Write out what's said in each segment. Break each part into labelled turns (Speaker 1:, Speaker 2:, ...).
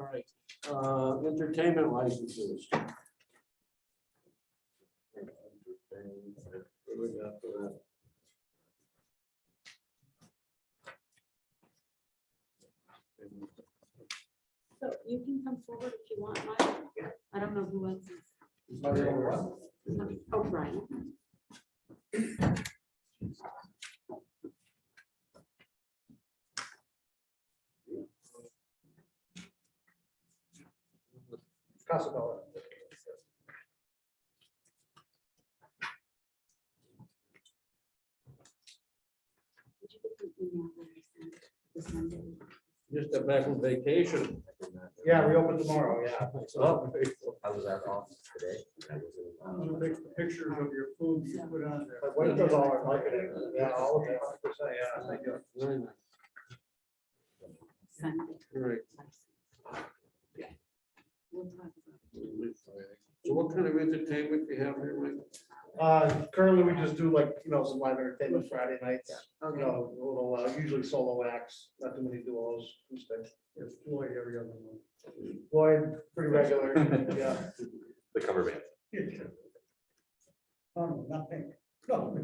Speaker 1: All right, uh, entertainment licenses.
Speaker 2: So you can come forward if you want, Michael. I don't know who else is. Oh, Brian.
Speaker 3: Casabella.
Speaker 2: Did you get the email that I sent this Monday?
Speaker 1: Just got back from vacation.
Speaker 3: Yeah, we open tomorrow, yeah.
Speaker 1: Oh,
Speaker 4: I was at office today. I was in, um,
Speaker 3: pictures of your food
Speaker 2: you
Speaker 3: put on there. Wait till all our marketing. Yeah, all of it, 100%, yeah, thank you.
Speaker 1: Very nice.
Speaker 2: Sunday.
Speaker 1: All right.
Speaker 2: We'll talk about it.
Speaker 1: So what kind of entertainment do you have here, Mike?
Speaker 3: Uh, currently, we just do like, you know, some live entertainment Friday nights, you
Speaker 2: Okay,
Speaker 3: know, a little, uh, usually solo acts, not too many duos, acoustic. It's Floyd every other one. Floyd, pretty regular, yeah.
Speaker 5: The cover band.
Speaker 3: Oh, nothing. No.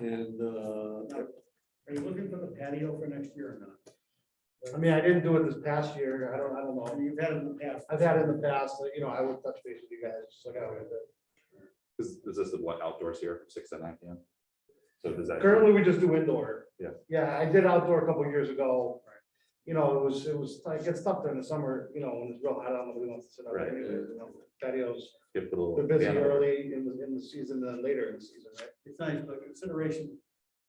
Speaker 1: And, uh,
Speaker 3: Are you looking for the patio for next year or not? I mean, I didn't do it this past year. I don't, I don't know. You've had it in the past. I've had it in the past, like, you know, I would touch base with you guys, just like I would.
Speaker 5: Is, is this the what outdoors here, from six to nine PM? So does that?
Speaker 3: Currently, we just do indoor.
Speaker 5: Yeah.
Speaker 3: Yeah, I did outdoor a couple years ago. You know, it was, it was, I get stuff during the summer, you know, when it's real hot out, nobody wants to sit out
Speaker 5: Right.
Speaker 3: there. anyways, you know, Patios,
Speaker 5: Give the little
Speaker 3: they're busy
Speaker 5: band a-
Speaker 3: early in the, in the season, then later in the season, right?
Speaker 6: it's nice, but consideration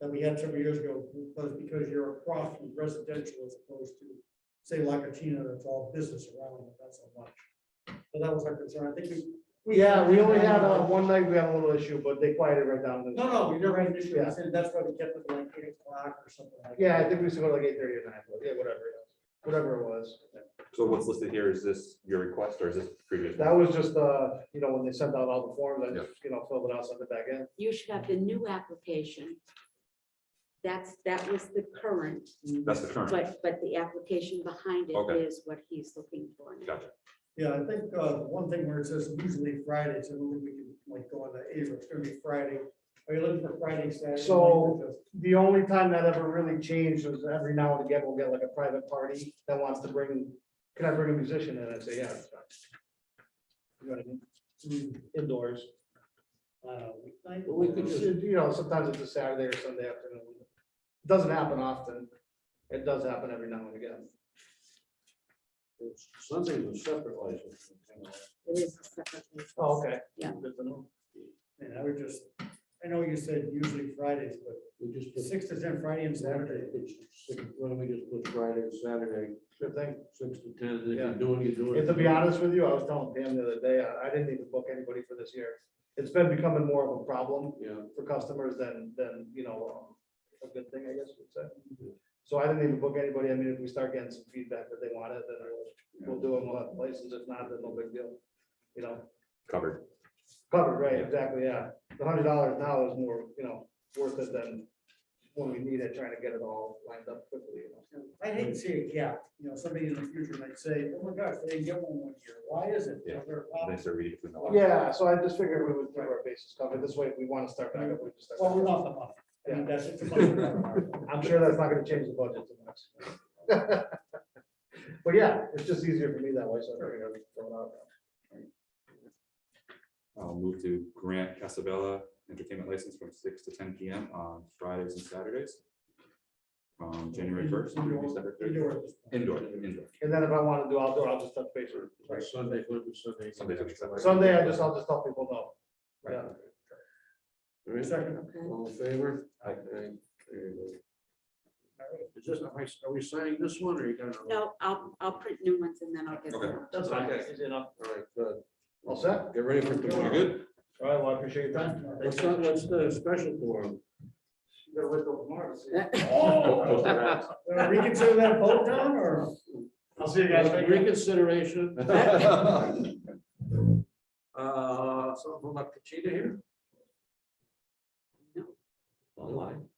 Speaker 6: that we had several years ago was because you're across from residential as opposed to, say, Lackatina, that's all business around, it, that's so much. So that was our concern, I think we. we-
Speaker 3: Yeah, we only had, uh, one night we had a little issue, but they quieted right down.
Speaker 6: No, no, we never had an issue, I said, that's why we kept it like eight o'clock or something like.
Speaker 3: Yeah, I
Speaker 6: that.
Speaker 3: think we used to go to like eight thirty or nine, but yeah, whatever, yeah, whatever it was.
Speaker 5: So what's listed here, is this your request or is this previous?
Speaker 3: That was just, uh, you know, when they sent out all the forms, I
Speaker 5: Yeah.
Speaker 3: just, you know, filled it out, sent it back in.
Speaker 2: You should have the new application. That's, that was the current,
Speaker 6: Mm-hmm.
Speaker 5: That's the current,
Speaker 2: but, but the application behind it
Speaker 5: Okay.
Speaker 2: is what he's looking for. now.
Speaker 5: gotcha.
Speaker 6: Yeah, I think, uh, one thing where it says usually Fridays, I don't think we can like go on the eight, it's gonna be Friday. Are you looking for Friday, Saturday?
Speaker 3: So- The only time that ever really changed was every now and again, we'll get like a private party that wants to bring, can I bring a musician? And I'd say, yeah. it's fine." You know what I mean? Mm, Indoors. Uh,
Speaker 6: Weeknight?
Speaker 1: well, we could
Speaker 3: It's,
Speaker 1: just,
Speaker 3: You know, sometimes it's a Saturday or Sunday afternoon. Doesn't happen often. It does happen every now and again.
Speaker 1: something's a separate license.
Speaker 2: It is a separate. license.
Speaker 3: Oh, okay.
Speaker 2: Yeah.
Speaker 3: Good to know.
Speaker 6: And I would just, I know you said usually Fridays, but
Speaker 1: We just put
Speaker 6: six to ten Friday and Saturday.
Speaker 1: Saturday. Why don't we just put Friday and Saturday,
Speaker 3: Good thing.
Speaker 1: six to ten, and if
Speaker 3: Yeah.
Speaker 1: you do it, you do it.
Speaker 3: And to be honest with you, I was telling Pam the other day, I, I didn't even book anybody for this year. It's been becoming more of a problem
Speaker 1: Yeah.
Speaker 3: for customers than, than, you know, um, a good thing, I guess you'd say. So I didn't even book anybody. I mean, if we start getting some feedback that they want it, then we'll, we'll do it, we'll have license. If not, then no big deal. You know,
Speaker 5: Covered.
Speaker 3: covered, right?
Speaker 5: Yeah.
Speaker 3: Exactly, yeah. The hundred dollars now is more, you know, worth it than when we need it, trying to get it all lined up quickly, you know.
Speaker 6: I hate to see a gap, you know, somebody in the future might say, oh my gosh, they didn't get one one year, why is it?
Speaker 5: Yeah.
Speaker 6: Is there a problem?
Speaker 5: They start reading between the lines.
Speaker 3: Yeah, so I just figured we would keep our bases covered. This way, if we want to start back up, we just start.
Speaker 6: Well,
Speaker 3: back
Speaker 6: we're
Speaker 3: up.
Speaker 6: off the month. I mean, that's just a month.
Speaker 3: I'm sure that's not gonna change the budget too much. But yeah, it's just easier for me that way, so. I figured I'd throw it out.
Speaker 5: I'll move to grant Casabella entertainment license from six to ten PM on Fridays and Saturdays. From January first.
Speaker 6: Indoor at this point.
Speaker 5: Indoor, indoor.
Speaker 3: And then if I wanna do outdoor, I'll just touch base with.
Speaker 1: Like Sunday, what is Sunday?
Speaker 5: Sunday, Sunday.
Speaker 3: Sunday, I just, I'll just tell people no. Yeah,
Speaker 1: There is-
Speaker 6: Second.
Speaker 2: Okay.
Speaker 1: All in favor?
Speaker 5: Aye.
Speaker 1: Okay, there you go. Is this, am I, are we signing this one or you got? another one?
Speaker 2: No, I'll, I'll print new ones and then I'll get
Speaker 5: Okay.
Speaker 2: them.
Speaker 3: that's fine, guys, easy enough.
Speaker 1: All right, good.
Speaker 3: All set?
Speaker 1: Get ready for tomorrow.
Speaker 5: You're good?
Speaker 3: All right, well, I appreciate your time.
Speaker 1: What's not, what's the special forum?
Speaker 3: You gotta wait till tomorrow to see. Oh!
Speaker 5: Close your eyes.
Speaker 6: Uh, Reconsider that vote down or?
Speaker 3: I'll see you
Speaker 1: Uh, Reconsideration. Uh, something about Kachita here?
Speaker 2: No.
Speaker 1: Online.